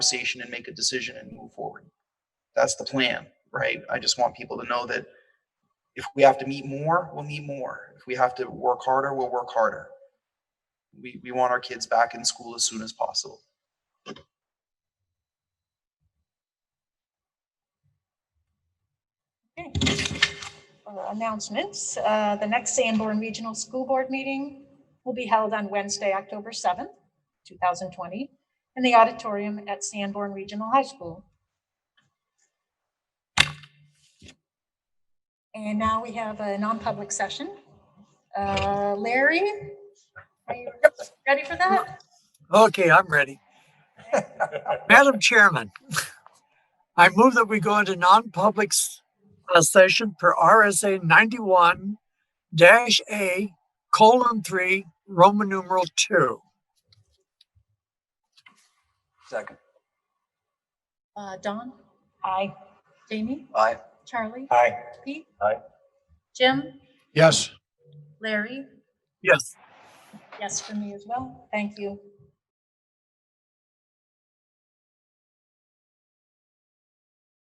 conversation and make a decision and move forward. That's the plan, right? I just want people to know that if we have to meet more, we'll meet more. If we have to work harder, we'll work harder. We, we want our kids back in school as soon as possible. uh, announcements. Uh, The next Sanborn Regional School Board meeting will be held on Wednesday, October 7th, 2020, in the auditorium at Sanborn Regional High School. And now we have a non-public session. Uh, Larry, are you ready for that? Okay, I'm ready. Madam Chairman, I move that we go into non-public s- uh, session per RSA ninety-one dash A colon three, Roman numeral two. Second. Uh, Dawn? Hi. Jamie? Aye. Charlie? Aye. Pete? Aye. Jim? Yes. Larry? Yes. Yes, for me as well. Thank you.